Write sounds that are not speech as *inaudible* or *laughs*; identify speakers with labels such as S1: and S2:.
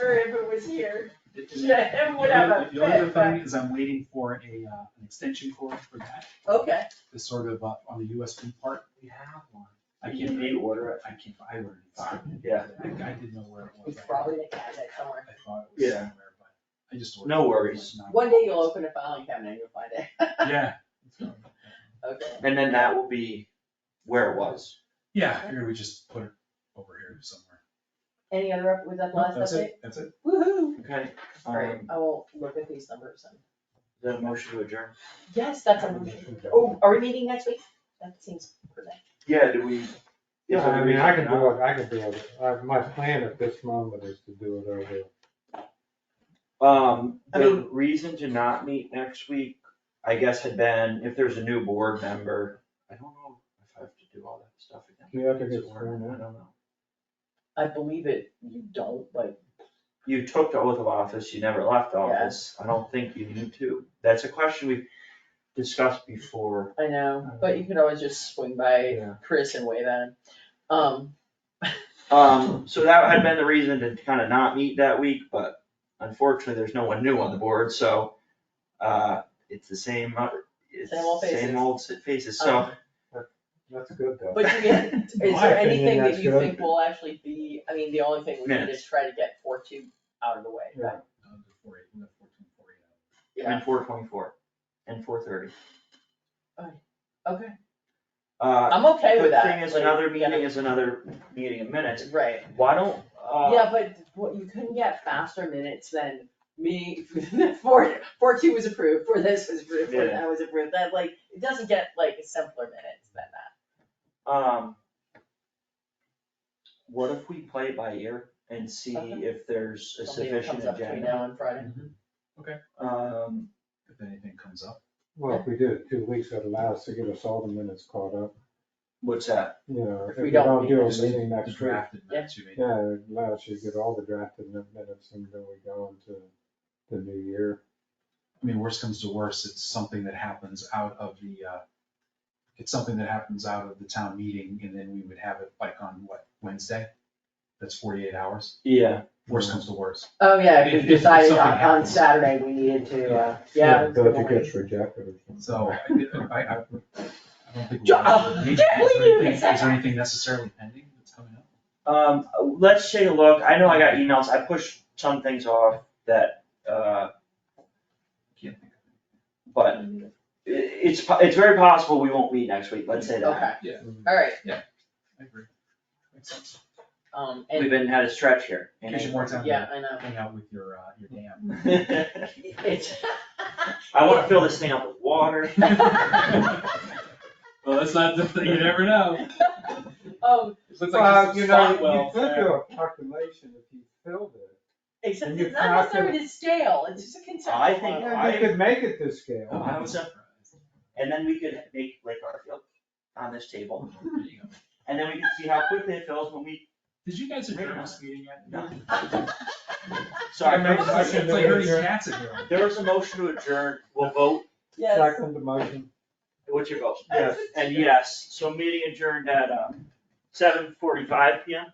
S1: or if it was here,
S2: It- it-
S1: it would have a
S2: The only other
S1: fit, but,
S2: thing is I'm waiting for a, uh, an extension cord for that,
S1: okay.
S2: the sort of, uh, on the USB part, we have one. I
S3: You
S2: can't,
S3: need to order it.
S2: I can't, I learned. it.
S3: Mm-hmm. Yeah.
S2: I, I didn't know where it was.
S4: It's probably in the cabinet
S2: I
S4: somewhere.
S2: thought it was
S3: Yeah.
S2: somewhere, but I just. ordered
S3: No
S2: it.
S3: worries.
S2: It's not-
S4: One day you'll open a filing cabinet and you'll find it.
S2: *laughs*
S4: *laughs*
S2: Yeah.
S4: Okay.
S3: And then that will be where it was.
S2: Yeah, I figured we just put it over here somewhere.
S4: Any other, up- was that the last
S2: That's
S4: update?
S2: it, that's it.
S4: Woohoo!
S3: Okay.
S4: All right,
S3: um,
S4: I will look at these numbers and,
S3: The motion to adjourn.
S4: yes, that's, a- oh, are we meeting next week? That seems perfect.
S3: Yeah, do we?
S5: Yeah, I mean, I can do it, I can do it. I- My plan at this moment is to do it over
S3: Um,
S4: I
S3: the reason to not meet next week, I guess, had been if there's a new board member. I don't know if I have to do all that stuff again.
S5: You have to get
S3: Is it worth
S5: sworn
S3: it? I
S5: in.
S3: don't know.
S4: I believe it, you don't, but
S3: You took the oath of office, you never left office. I don't think you need to. That's a question we discussed before.
S4: I know, but you could always just swing by
S3: Yeah.
S4: Chris and wave at him. Um,
S3: Um, so that had been the reason to kind of not meet that week, but unfortunately, there's no one new on the board, so, uh, it's the same, uh, it's
S4: Same old faces. Oh,
S3: same old si- faces, so.
S5: That's good though.
S4: but you
S3: *laughs*
S4: get, is
S5: In my
S4: there
S5: opinion,
S4: anything that
S5: that's
S4: you
S5: good.
S4: think will actually be, I mean, the only thing we need is
S3: Minutes.
S4: try to get four two out of the way, but-
S2: Um, the 48, the 14, 48.
S3: And four twenty-four, and four thirty.
S4: Okay,
S3: Uh,
S4: I'm okay with that.
S3: The thing is,
S4: like,
S3: another
S4: yeah.
S3: meeting is another meeting in minutes,
S4: Right,
S3: why don't, uh,
S4: yeah, but what, you couldn't get faster minutes than me, *laughs* four, four two was approved, four this was approved, four
S3: Yeah.
S4: that was approved, that like, it doesn't get like simpler minutes than that.
S3: um. What if we play it by ear and see
S4: Okay.
S3: if there's a
S4: Something that
S3: sufficient
S4: comes up between
S3: agenda?
S4: now and Friday.
S3: Um.
S2: If anything comes up.
S5: Well, if we do it two weeks, it'll allow us to get us all the minutes caught up,
S3: What's that?
S5: you know,
S4: If
S5: if
S4: we
S5: we
S4: don't
S5: don't
S4: meet,
S5: do a
S2: Just
S5: meeting
S2: the
S5: next week.
S2: drafted minutes you made.
S5: Yeah, it allows you to get all the drafted minutes and then we go into the new year.
S2: I mean, worst comes to worst, it's something that happens out of the, uh, it's something that happens out of the town meeting and then we would have it like on what, Wednesday? That's forty-eight hours,
S3: Yeah.
S2: worst comes to worst.
S4: Oh, yeah, we
S2: If- if
S4: decided
S2: something
S4: on, on
S2: happens.
S4: Saturday we needed to, uh, yeah. it was
S5: But
S4: good
S5: if it
S4: morning.
S5: gets rejected or something.
S2: So I, I, I I don't
S5: *laughs*
S2: think. we
S4: John,
S2: have to- Is
S4: Jeff, will
S2: there
S4: you
S2: anything-
S4: accept
S2: Is there anything necessarily pending that's coming up?
S3: Um, let's take a look. I know I got emails. I pushed some things off that, uh,
S2: Can't think of
S3: but i- it's, po- it's very possible we won't meet next week. Let's say that.
S4: Okay,
S2: Yeah.
S4: alright,
S2: it. I agree. Makes sense.
S4: um,
S3: We've
S4: and,
S3: been had a stretch here. in
S2: Gives you more time
S4: yeah,
S2: to
S4: I know,
S2: hang out with your, uh, your dam.
S3: *laughs*
S2: *laughs*
S3: April.
S4: it's,
S3: I wanna fill this thing up with water.
S2: Well, that's not, the you never know.
S4: *laughs* um,
S2: It looks
S5: Well,
S2: like
S5: you
S2: there's some spot
S5: know, you
S2: wells
S5: could
S2: there.
S5: do a calculation if you filled it.
S4: except
S5: And you
S4: it's not necessarily
S5: calculate-
S4: to scale, it's just a conceptual.
S3: I think-
S4: model.
S5: Yeah, you could make it to scale.
S3: Oh, I was surprised. And then we could make Lake Garfield on this table,
S2: There you go.
S3: and then we can see how quickly it fills when we,
S2: Did you guys adjourn this meeting yet?
S3: No.
S2: Sorry,
S5: I
S3: sorry.
S5: made a
S2: it's like
S5: motion to
S2: herding
S5: adjourn.
S2: cats in here.
S3: There was a motion to adjourn. We'll vote.
S4: *laughs* Yes.
S5: Second the motion.
S3: What's your vote?
S5: Yes.
S3: And yes, so meeting adjourned at, uh, seven forty-five PM.